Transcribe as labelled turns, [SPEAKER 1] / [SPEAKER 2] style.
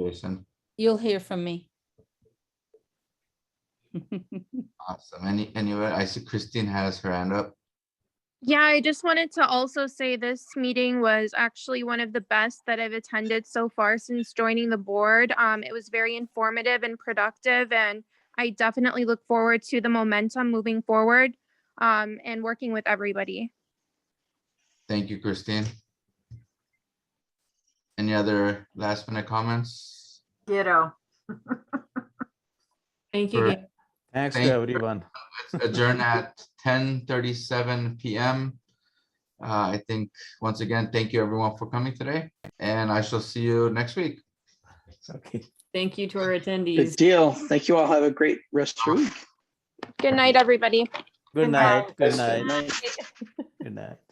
[SPEAKER 1] Jason.
[SPEAKER 2] You'll hear from me.
[SPEAKER 1] Awesome. Any, anywhere? I see Christine has her hand up.
[SPEAKER 3] Yeah, I just wanted to also say this meeting was actually one of the best that I've attended so far since joining the board. Um, it was very informative and productive, and I definitely look forward to the momentum moving forward um, and working with everybody.
[SPEAKER 1] Thank you, Christine. Any other last minute comments?
[SPEAKER 4] Ditto.
[SPEAKER 5] Thank
[SPEAKER 1] Sure.
[SPEAKER 5] you. Gabe.
[SPEAKER 6] Thanks
[SPEAKER 1] Thank
[SPEAKER 6] to
[SPEAKER 1] you.
[SPEAKER 6] everyone.
[SPEAKER 1] Adjourn at ten thirty-seven PM. Uh, I think, once again, thank you everyone for coming today, and I shall see you next week.
[SPEAKER 6] Okay.
[SPEAKER 5] Thank you to our
[SPEAKER 7] Good
[SPEAKER 5] attendees.
[SPEAKER 7] deal. Thank you all. Have a great rest of your week.
[SPEAKER 3] Good night, everybody.
[SPEAKER 6] Good night. Good night.
[SPEAKER 7] Night.
[SPEAKER 6] Good night.